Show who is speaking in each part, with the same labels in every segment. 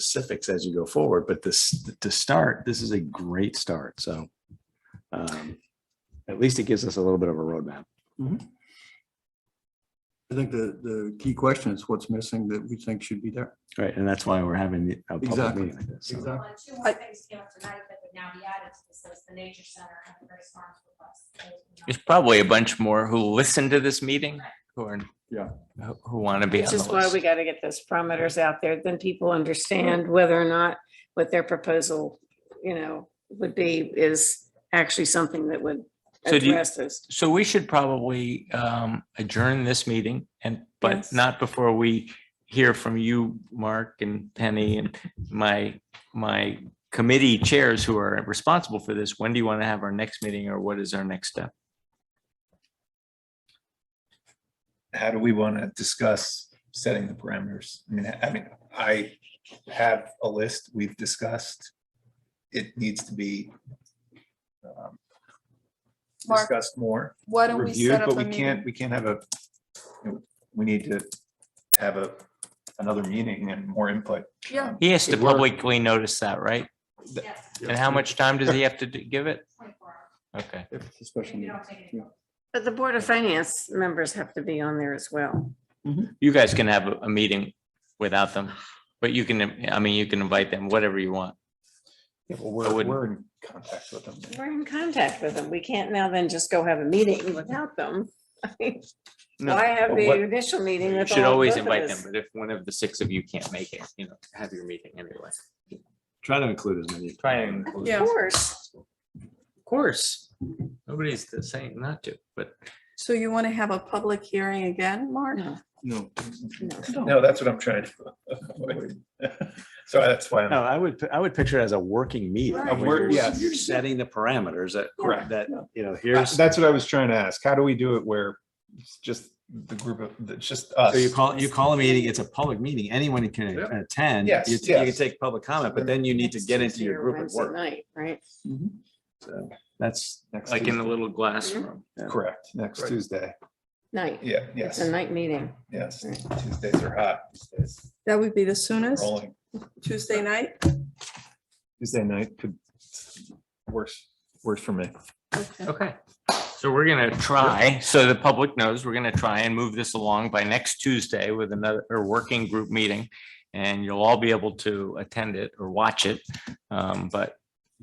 Speaker 1: specifics as you go forward, but this, to start, this is a great start, so. um, At least it gives us a little bit of a roadmap.
Speaker 2: I think the, the key question is what's missing that we think should be there.
Speaker 1: Right, and that's why we're having the- a public
Speaker 2: Exactly.
Speaker 1: meeting like this. so.
Speaker 2: Exactly.
Speaker 3: Well, and two more things came up tonight that would now be added to this, so it's the nature center and the Grace Farms request. Those would not-
Speaker 4: There's probably a bunch more who listen to this meeting who are.
Speaker 2: Yeah.
Speaker 4: who- Who want to be on
Speaker 5: Which
Speaker 4: the
Speaker 5: is why we
Speaker 4: list. Mm-hmm.
Speaker 5: got to get those parameters out there, then people understand whether or not what their proposal, you know, would be is actually something that would
Speaker 4: So do you-
Speaker 5: address this.
Speaker 4: So we should probably um, adjourn this meeting and, but
Speaker 5: Yes.
Speaker 4: not before we hear from you, Mark and Penny and my, my committee chairs who are responsible for this. When do you want to have our next meeting or what is our next step?
Speaker 6: how do we want to discuss setting the parameters? I mean, I mean, I have a list we've discussed. It needs to be um,
Speaker 7: Mark,
Speaker 6: discussed more,
Speaker 7: why don't we
Speaker 6: reviewed,
Speaker 7: set up
Speaker 6: but
Speaker 7: a
Speaker 6: we can't,
Speaker 7: meeting?
Speaker 6: we can't have a, you know, we need to have a, another meeting and more input.
Speaker 7: Yeah,
Speaker 4: He has to
Speaker 1: It worked.
Speaker 4: publicly notice that, right?
Speaker 3: Yes,
Speaker 4: And how much time does he have to d- give it?
Speaker 3: twenty-four hours.
Speaker 4: Okay.
Speaker 2: If it's a
Speaker 3: If
Speaker 2: special
Speaker 3: you
Speaker 2: meeting.
Speaker 3: don't take it.
Speaker 5: But the Board of Finance members have to be on there as well.
Speaker 4: You guys can have a, a meeting without them, but you can, I mean, you can invite them, whatever you want.
Speaker 6: Yeah,
Speaker 4: I
Speaker 6: well, we're,
Speaker 4: wouldn't-
Speaker 6: we're in contact with them.
Speaker 5: We're in contact with them. We can't now then just go have a meeting without them.
Speaker 4: No,
Speaker 5: Why have
Speaker 4: but
Speaker 5: the
Speaker 4: what-
Speaker 5: initial meeting
Speaker 4: You
Speaker 5: with
Speaker 4: should
Speaker 5: all
Speaker 4: always
Speaker 5: both of
Speaker 4: invite them,
Speaker 5: us?
Speaker 4: but if one of the six of you can't make it, you know, have your meeting anyway.
Speaker 1: Try to include as many.
Speaker 4: Try and. include-
Speaker 5: Of
Speaker 7: Yeah.
Speaker 5: course.
Speaker 4: Of course, nobody's saying not to, but
Speaker 7: so you want to have a public hearing again, Mark?
Speaker 5: No,
Speaker 2: No.
Speaker 5: no.
Speaker 6: No, that's what I'm trying to. avoid. So that's why
Speaker 1: No,
Speaker 6: I'm,
Speaker 1: I would, I would picture it as a working meeting.
Speaker 7: Right. A
Speaker 1: where
Speaker 6: work-
Speaker 1: you're-
Speaker 6: yes.
Speaker 1: You're setting the parameters that,
Speaker 6: Correct.
Speaker 1: that, you know, here's, so
Speaker 6: that's what I was trying to ask. How do we do it where it's just the group of, it's just us?
Speaker 1: you call, you call a meeting, it's a public meeting, anyone can
Speaker 2: Yep.
Speaker 1: attend.
Speaker 6: Yes,
Speaker 1: You you can
Speaker 6: yes.
Speaker 1: take public comment, but then you need to
Speaker 5: Next
Speaker 1: get into your
Speaker 5: Tuesday or
Speaker 1: group at
Speaker 5: Wednesday
Speaker 1: work.
Speaker 5: Night, right?
Speaker 1: So That's,
Speaker 6: Next
Speaker 4: like in the
Speaker 6: Tuesday.
Speaker 4: little glass room.
Speaker 6: Correct, next
Speaker 2: Right.
Speaker 6: Tuesday.
Speaker 5: Night.
Speaker 6: Yeah,
Speaker 5: It's
Speaker 6: yes,
Speaker 5: a night meeting.
Speaker 6: yes.
Speaker 5: Right.
Speaker 6: Tuesdays are hot. these days.
Speaker 7: That would be the soonest,
Speaker 6: Rolling.
Speaker 7: Tuesday night?
Speaker 6: Tuesday night could, worse, worse for me.
Speaker 7: Okay.
Speaker 4: Okay, so we're gonna try, so the public knows, we're gonna try and move this along by next Tuesday with another, or working group meeting. And you'll all be able to attend it or watch it, um, but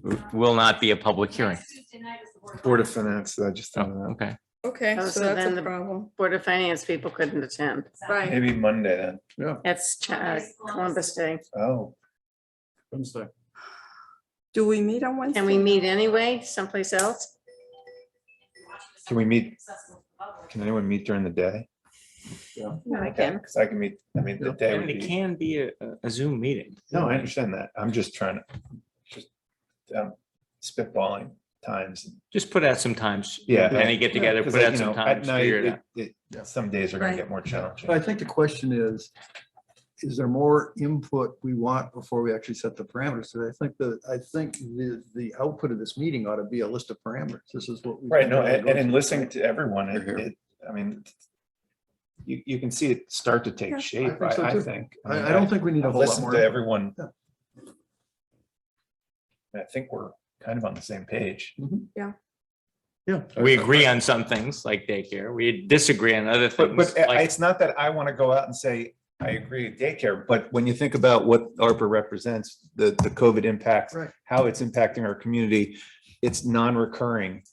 Speaker 4: w- will not be a public hearing.
Speaker 3: Next Tuesday night is the board.
Speaker 6: Board of Finance, I just,
Speaker 4: Oh,
Speaker 6: thought of
Speaker 4: okay,
Speaker 7: Okay,
Speaker 5: Oh,
Speaker 7: so
Speaker 5: so
Speaker 7: that's
Speaker 5: then
Speaker 7: a
Speaker 5: the-
Speaker 7: problem.
Speaker 5: Board of Finance people couldn't attend.
Speaker 3: Oh,
Speaker 6: that.
Speaker 7: Right,
Speaker 6: maybe Monday then.
Speaker 5: That's Ch- uh, Columbus Day.
Speaker 6: Oh,
Speaker 2: Wednesday.
Speaker 7: do we meet on Wednesday?
Speaker 5: Can we meet anyway, someplace else?
Speaker 6: can we meet,
Speaker 3: Accessible to the public.
Speaker 6: can anyone meet during the day?
Speaker 5: No, I can.
Speaker 6: Because I can meet, I mean, the day
Speaker 4: and
Speaker 6: would
Speaker 4: it
Speaker 6: be,
Speaker 4: can be a, a Zoom meeting.
Speaker 6: no, I understand that. I'm just trying to, just um, spitballing times.
Speaker 4: Just put out some times.
Speaker 6: Yeah.
Speaker 4: Penny, get together,
Speaker 6: 'Cause
Speaker 4: put
Speaker 6: I-
Speaker 4: out
Speaker 6: you
Speaker 4: some
Speaker 6: know, at
Speaker 4: times,
Speaker 6: night,
Speaker 4: figure it out.
Speaker 6: it- it- Some days are gonna
Speaker 7: Right.
Speaker 6: get more challenging.
Speaker 2: But I think the question is, is there more input we want before we actually set the parameters? So I think the, I think the, the output of this meeting ought to be a list of parameters. This is what. we
Speaker 6: Right, no,
Speaker 2: think we're gonna
Speaker 6: and, and
Speaker 2: go
Speaker 6: in
Speaker 2: to.
Speaker 6: listening to everyone, it,
Speaker 2: Here, here.
Speaker 6: it, I mean, you, you can see it start to
Speaker 7: Yeah,
Speaker 6: take
Speaker 7: I
Speaker 6: shape,
Speaker 2: think so
Speaker 6: I, I
Speaker 2: too.
Speaker 6: think. mean,
Speaker 2: I, I don't think we need a
Speaker 6: I've
Speaker 2: whole lot
Speaker 6: listened
Speaker 2: more.
Speaker 6: to everyone.
Speaker 2: Yeah.
Speaker 6: I think we're kind of on the same page.
Speaker 2: Yeah.
Speaker 4: We agree on some things like daycare. We disagree on other
Speaker 6: But,
Speaker 4: things.
Speaker 6: but I-
Speaker 4: like-
Speaker 6: it's not that I want to go out and say, I agree with daycare, but when you think about what ARPA represents, the, the COVID impact,
Speaker 2: Right.
Speaker 6: how it's impacting our community, it's non-recurring.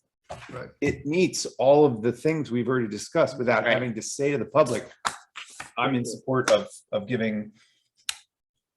Speaker 2: Right.
Speaker 6: It meets all of the things we've already discussed without
Speaker 4: Right.
Speaker 6: having to say to the public, I'm in support of, of giving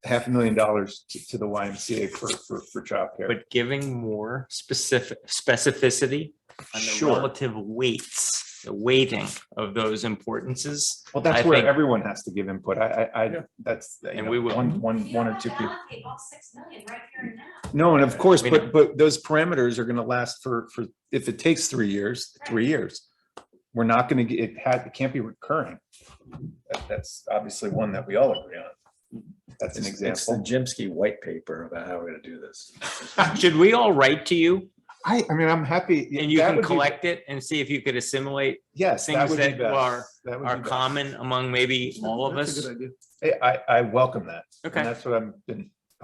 Speaker 6: half a million dollars to, to the YMCA for, for, for childcare.
Speaker 4: But giving more specific specificity on the
Speaker 6: Sure.
Speaker 4: relative weights, the weighting of those importances.
Speaker 6: Well,
Speaker 4: I
Speaker 6: that's where
Speaker 4: think-
Speaker 6: everyone has to give input. I, I, I, that's, you
Speaker 4: And
Speaker 6: know,
Speaker 4: we will.
Speaker 6: one, one,
Speaker 3: You
Speaker 6: one or
Speaker 3: don't
Speaker 6: two
Speaker 3: have to
Speaker 6: people.
Speaker 3: allocate all six million right here and now.
Speaker 6: No, and of course,
Speaker 4: We know.
Speaker 6: but, but those parameters are gonna last for, for, if it takes three years, three years. We're not gonna get, it had, it can't be recurring. That- That's obviously one that we all agree on. That's an
Speaker 1: It's- It's the
Speaker 6: example.
Speaker 1: Jimsky white paper about how we're gonna do this.
Speaker 4: Should we all write to you
Speaker 6: I, I mean, I'm happy.
Speaker 4: And you
Speaker 6: that
Speaker 4: can
Speaker 6: would be-
Speaker 4: collect it and see if you could assimilate
Speaker 6: Yes. that
Speaker 4: things
Speaker 6: would be
Speaker 4: that
Speaker 6: best.
Speaker 4: are-
Speaker 6: That would be
Speaker 4: our
Speaker 6: best.
Speaker 4: common among maybe all of
Speaker 2: That's a
Speaker 4: us.
Speaker 2: good idea.
Speaker 6: Hey, I, I welcome that.
Speaker 4: Okay.
Speaker 6: And that's what I'm, been